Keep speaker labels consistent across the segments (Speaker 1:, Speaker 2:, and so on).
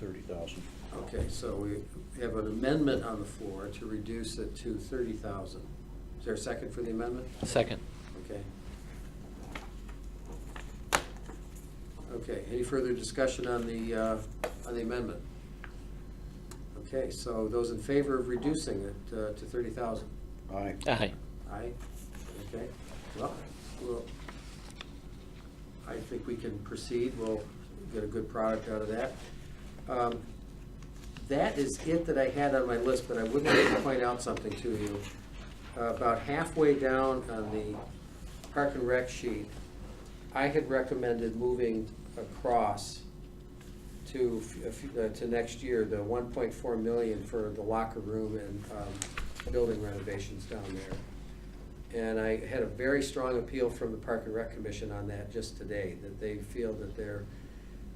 Speaker 1: thirty thousand.
Speaker 2: Okay, so we have an amendment on the floor to reduce it to thirty thousand. Is there a second for the amendment?
Speaker 3: Second.
Speaker 2: Okay. Okay, any further discussion on the, uh, on the amendment? Okay, so those in favor of reducing it uh, to thirty thousand?
Speaker 1: Aye.
Speaker 3: Aye.
Speaker 2: Aye, okay, well, well, I think we can proceed, we'll get a good product out of that. Um, That is it that I had on my list, but I would like to point out something to you. About halfway down on the park and rec sheet, I had recommended moving across to, f- a few- uh, to next year, the one point four million for the locker room and um, building renovations down there. And I had a very strong appeal from the Park and Rec Commission on that just today, that they feel that they're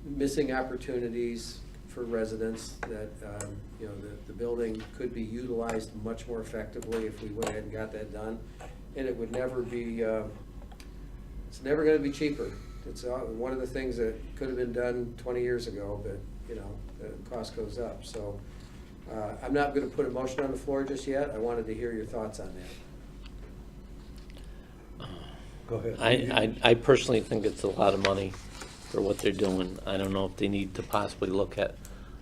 Speaker 2: missing opportunities for residents, that, um, you know, that the building could be utilized much more effectively if we went ahead and got that done. And it would never be, uh, it's never gonna be cheaper. It's uh, one of the things that could have been done twenty years ago, but, you know, the cost goes up, so. uh, I'm not gonna put a motion on the floor just yet, I wanted to hear your thoughts on that.
Speaker 1: Go ahead.
Speaker 3: I, I I personally think it's a lot of money for what they're doing. I don't know if they need to possibly look at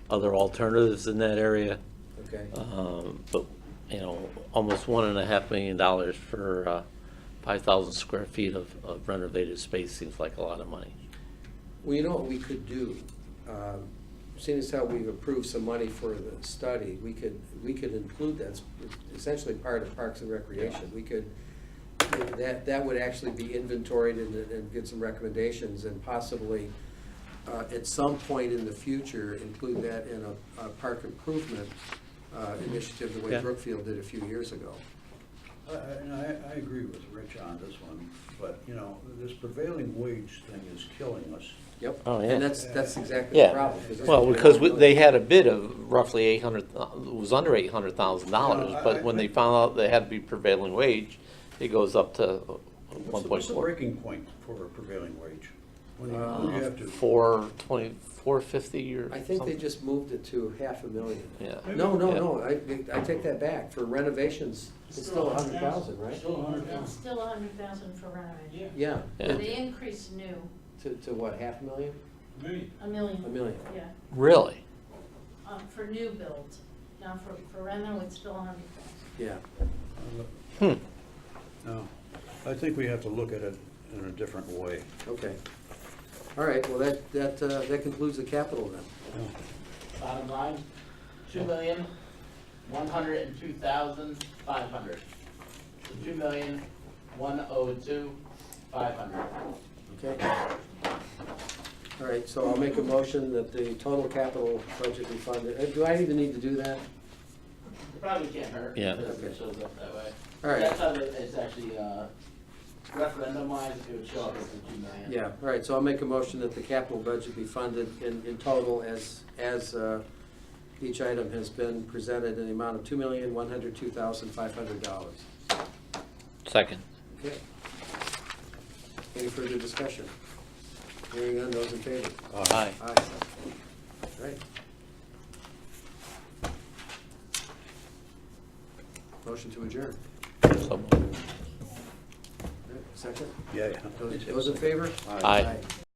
Speaker 3: other alternatives in that area.
Speaker 2: Okay,
Speaker 3: Um, But, you know, almost one and a half million dollars for uh, 5,000 square feet of of renovated space seems like a lot of money.
Speaker 2: well, you know what we could do, um, seeing as how we've approved some money for the study, we could, we could include that, It's essentially part of Parks and Recreation, we could, that, that would actually be inventoried and, and get some recommendations and possibly, uh, at some point in the future, include that in a, a park improvement, uh, initiative, the way
Speaker 3: Yeah.
Speaker 2: Brookfield did a few years ago.
Speaker 4: I, I, and I- I agree with Rich on this one, but, you know, this prevailing wage thing is killing us.
Speaker 2: Yep.
Speaker 3: Oh, yeah.
Speaker 2: And that's, that's exactly the
Speaker 3: Yeah,
Speaker 2: problem. that's
Speaker 3: well,
Speaker 2: what they
Speaker 3: because
Speaker 2: don't
Speaker 3: we-
Speaker 2: really-
Speaker 3: they had a bid of roughly 800, uh, it was under $800,000,
Speaker 4: Yeah, I-
Speaker 3: but
Speaker 4: I
Speaker 3: when they
Speaker 4: think-
Speaker 3: found out they had to be prevailing wage, it goes up to
Speaker 4: What's the, what's the
Speaker 3: 1.4.
Speaker 4: breaking point for a prevailing wage? When you,
Speaker 3: Um,
Speaker 4: when
Speaker 3: Uh,
Speaker 4: you have to.
Speaker 3: 420, 450 or
Speaker 2: I
Speaker 3: something.
Speaker 2: think they just moved it to half a million.
Speaker 3: Yeah.
Speaker 2: No, no,
Speaker 3: Yeah.
Speaker 2: no, I, I take that back. For renovations, it's still a hundred thousand, right?
Speaker 5: Still a hundred
Speaker 6: It's
Speaker 5: thousand.
Speaker 6: still a hundred thousand for renovation.
Speaker 2: Yeah.
Speaker 3: Yeah.
Speaker 6: The increase new,
Speaker 2: To, to what, half a million?
Speaker 5: Million.
Speaker 6: a million.
Speaker 2: A million.
Speaker 6: Yeah,
Speaker 3: Really?
Speaker 6: um, for new builds. Now for, for reno, it's still a hundred thousand.
Speaker 2: Yeah.
Speaker 3: Hmm.
Speaker 4: No, I think we have to look at it in a different way.
Speaker 2: Okay. All right, well, that, that, uh, that concludes the capital then.
Speaker 7: Bottom line, two million, one hundred and two thousand, five hundred. So two million, one oh two, five hundred.
Speaker 2: Okay. All right, so I'll make a motion that the total capital budget be funded. uh, Do I even need to do that?
Speaker 7: Probably can't hurt.
Speaker 3: Yeah.
Speaker 7: Because it shows up that way.
Speaker 2: All right,
Speaker 7: That's how it- it's actually, uh, referendum wise, it would show up as the two million.
Speaker 2: yeah, all right, so I'll make a motion that the capital budget be funded in, in total as, as, uh, each item has been presented in the amount of two million, one hundred two thousand, five hundred dollars.
Speaker 3: Second.
Speaker 2: Okay. Any further discussion? Hearing none, those in favor?
Speaker 3: Aye.
Speaker 2: Aye. All right. Motion to adjourn.
Speaker 3: So moved.
Speaker 2: All right, Second?
Speaker 4: Yeah, yeah.
Speaker 2: Those those in favor?
Speaker 3: Aye.